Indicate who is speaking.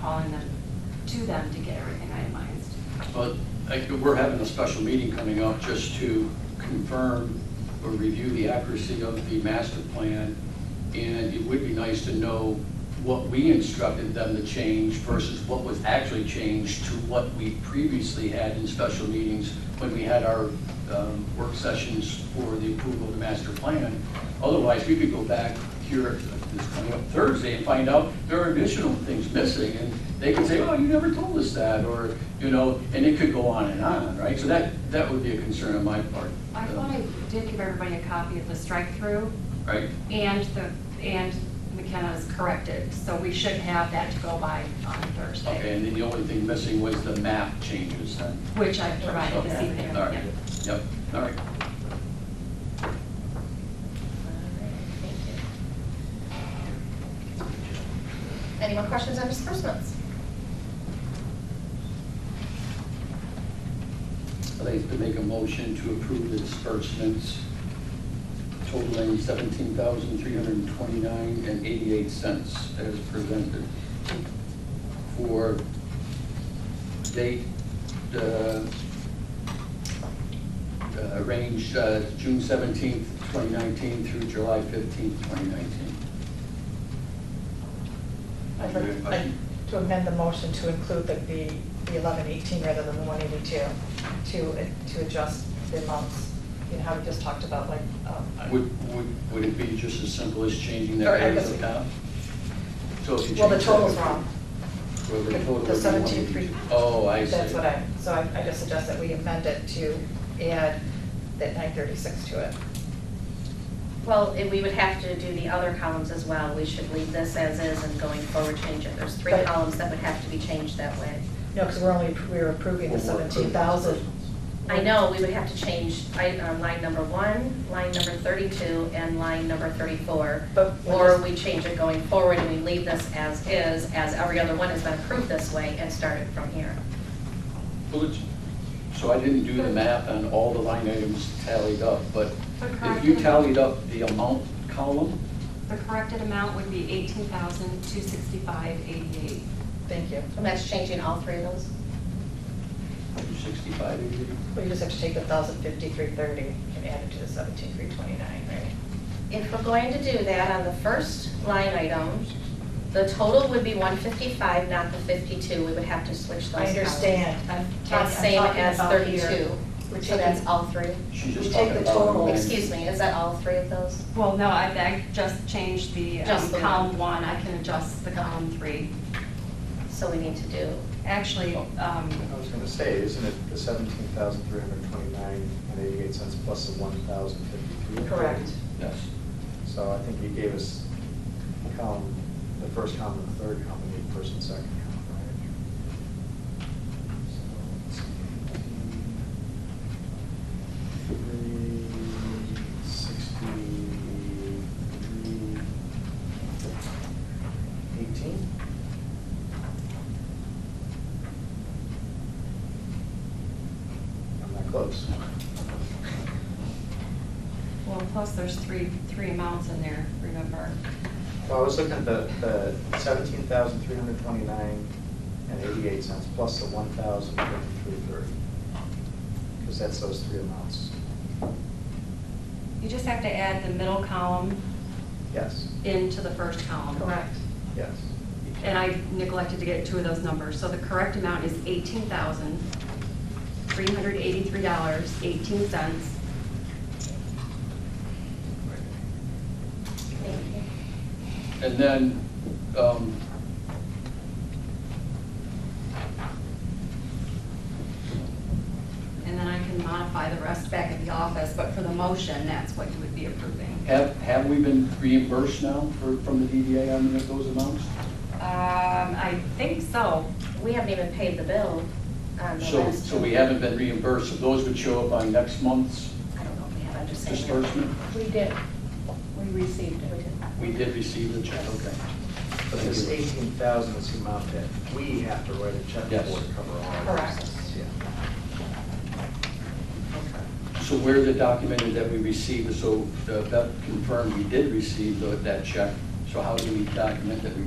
Speaker 1: calling them, to them to get everything itemized.
Speaker 2: But I think we're having a special meeting coming up just to confirm or review the accuracy of the master plan. And it would be nice to know what we instructed them to change versus what was actually changed to what we previously had in special meetings when we had our um, work sessions for the approval of the master plan. Otherwise, we could go back here this coming up Thursday and find out there are additional things missing. And they could say, oh, you never told us that, or, you know, and it could go on and on, right? So that, that would be a concern on my part. uh,
Speaker 1: I thought I did give everybody a copy of the strike-through
Speaker 2: Right?
Speaker 1: and the, and McKenna's corrected, so we should have that to go by on
Speaker 2: Okay,
Speaker 1: Thursday,
Speaker 2: and then the only thing missing was the map changes then.
Speaker 1: which I've provided this
Speaker 2: Okay,
Speaker 1: evening.
Speaker 2: All right,
Speaker 1: Yeah.
Speaker 2: yep, all right.
Speaker 3: Any more questions on disbursements?
Speaker 2: I'd like to make a motion to approve the disbursements totaling seventeen thousand three hundred and twenty-nine and eighty-eight cents as presented for date, uh, uh, range, uh, June seventeenth, twenty nineteen through July fifteenth, twenty nineteen.
Speaker 4: I'd like I'd- to amend the motion to include the, the the 1118 rather than the 182, to, to adjust the amounts, you know, how we just talked about, like, um,
Speaker 2: Would, would, would it be just as simple as changing that
Speaker 4: Or I
Speaker 2: rate
Speaker 4: guess-
Speaker 2: of account? So if you
Speaker 4: well, the
Speaker 2: change that-
Speaker 4: total's wrong.
Speaker 2: Well, the
Speaker 4: The-
Speaker 2: total
Speaker 4: the
Speaker 2: would be one
Speaker 4: 17,300.
Speaker 2: eighty. Oh, I see.
Speaker 4: That's what I, so I, I just suggest that we amend it to add that 936 to it.
Speaker 5: Well, and we would have to do the other columns as well. We should leave this as is and going forward change it. There's three
Speaker 4: But-
Speaker 5: columns that would have to be changed that way.
Speaker 4: No, because we're only, we're approving the
Speaker 2: Well, we're approving
Speaker 4: 17,000.
Speaker 5: I know, we would have to change i- uh, line number one, line number 32, and line number 34.
Speaker 4: But we're
Speaker 5: Or
Speaker 4: just-
Speaker 5: we change it going forward and we leave this as is, as every other one has been approved this way and start it from here.
Speaker 2: Well, it's- So I didn't do the math on all the line items tallied up, but
Speaker 1: But
Speaker 2: if you
Speaker 1: corrected-
Speaker 2: tallied up the amount column,
Speaker 1: The corrected amount would be eighteen thousand, two sixty-five, eighty-eight.
Speaker 4: Thank you.
Speaker 5: And that's changing all three of those?
Speaker 2: sixty-five,
Speaker 4: Well, you just have to take the 1,053.30 and add it to the 17,329, right?
Speaker 5: If we're going to do that on the first line item, the total would be 155, not the 52. We would have to switch those
Speaker 4: I
Speaker 5: columns.
Speaker 4: understand. I'm- I'm
Speaker 5: That's same
Speaker 4: talking
Speaker 5: as
Speaker 4: about here.
Speaker 5: 32.
Speaker 4: We're
Speaker 5: So that's
Speaker 4: taking-
Speaker 5: all three?
Speaker 2: she's just talking
Speaker 4: We take
Speaker 2: about.
Speaker 4: the total.
Speaker 2: line-
Speaker 5: Excuse me, is that all three of those?
Speaker 1: Well, no, I, I just changed the um,
Speaker 5: Just the one.
Speaker 1: column one, I can adjust the column three.
Speaker 5: So we need to do,
Speaker 1: Actually,
Speaker 2: Oh.
Speaker 1: um,
Speaker 6: I was gonna say, isn't it the seventeen thousand three hundred twenty-nine and eighty-eight cents plus the one thousand fifty-three?
Speaker 4: Correct.
Speaker 2: Yes,
Speaker 6: So I think you gave us column, the first column, and the third column, and the first and second column, right? So it's 18,363, 18? I'm not close.
Speaker 1: well, plus there's three, three amounts in there, remember?
Speaker 6: Well, I was looking at the, the seventeen thousand three hundred twenty-nine and eighty-eight cents plus the one thousand fifty-three thirty. Because that's those three amounts.
Speaker 1: You just have to add the middle column
Speaker 6: Yes,
Speaker 1: into the first column.
Speaker 4: Correct.
Speaker 6: yes.
Speaker 1: And I neglected to get two of those numbers, so the correct amount is eighteen thousand, three hundred eighty-three dollars, eighteen cents.
Speaker 5: thank you.
Speaker 2: and then, um,
Speaker 1: And then I can modify the rest back at the office, but for the motion, that's what you would be approving.
Speaker 2: have, have we been reimbursed now for, from the DDA on those amounts?
Speaker 1: Um, I think so.
Speaker 5: We haven't even paid the bill on the
Speaker 2: So,
Speaker 5: last.
Speaker 2: so we
Speaker 5: two.
Speaker 2: haven't been reimbursed, so those would show up on next month's
Speaker 5: I don't know if we have, I'm just saying.
Speaker 2: disbursement?
Speaker 3: We did. We received
Speaker 5: We did.
Speaker 2: We did receive the check, okay.
Speaker 6: But this eighteen thousand is the amount that we have to write a check for
Speaker 2: Yes.
Speaker 6: to cover all of
Speaker 4: Correct.
Speaker 6: this. Yeah.
Speaker 2: So where the documented that we received, so uh, Beth confirmed we did receive tho- that check, so how do we document that we